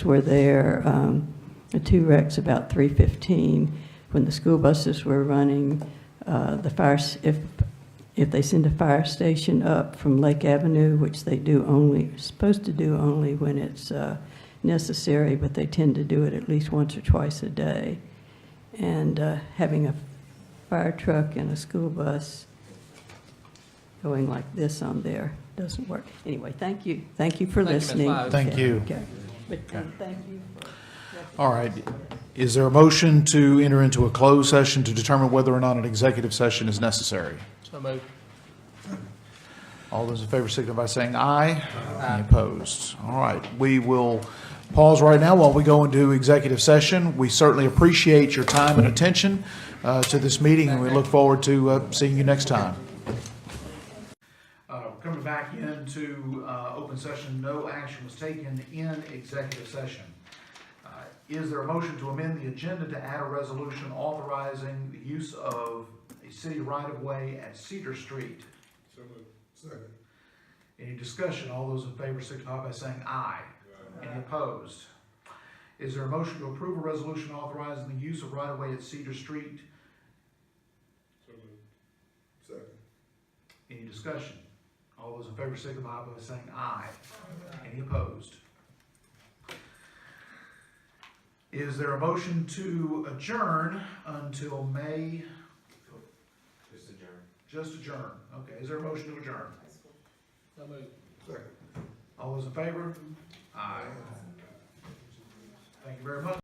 were there, um, the two wrecks about 3:15, when the school buses were running, uh, the fire, s- if, if they send a fire station up from Lake Avenue, which they do only, supposed to do only when it's uh, necessary, but they tend to do it at least once or twice a day, and uh, having a fire truck and a school bus going like this on there doesn't work. Anyway, thank you, thank you for Thank you, Ms. listening. Lyles. Yeah. Thank you. Okay. But, and thank you for. All right. Is there a motion to enter into a closed session to determine whether or not an executive session is necessary? So moved. All those in favor signify by saying aye. Any opposed? All right, we will pause right now while we go into executive session. We certainly appreciate your time and attention uh, to this meeting, and we look forward to uh, seeing you next time. Uh, Coming back into uh, open session, no action was taken in executive session. Uh, Is there a motion to amend the agenda to add a resolution authorizing the use of a city right-of-way at Cedar Street? So moved. Second. Any discussion? All those in favor signify by saying aye. Any opposed? Is there a motion to approve a resolution authorizing the use of right-of-way at Cedar Street? So moved. Second. Any discussion? All those in favor signify by saying aye. Any opposed? Is there a motion to adjourn until May? Just adjourn. Just adjourn. Okay, is there a motion to adjourn? So moved. Second. All those in favor? Aye. Thank you very much.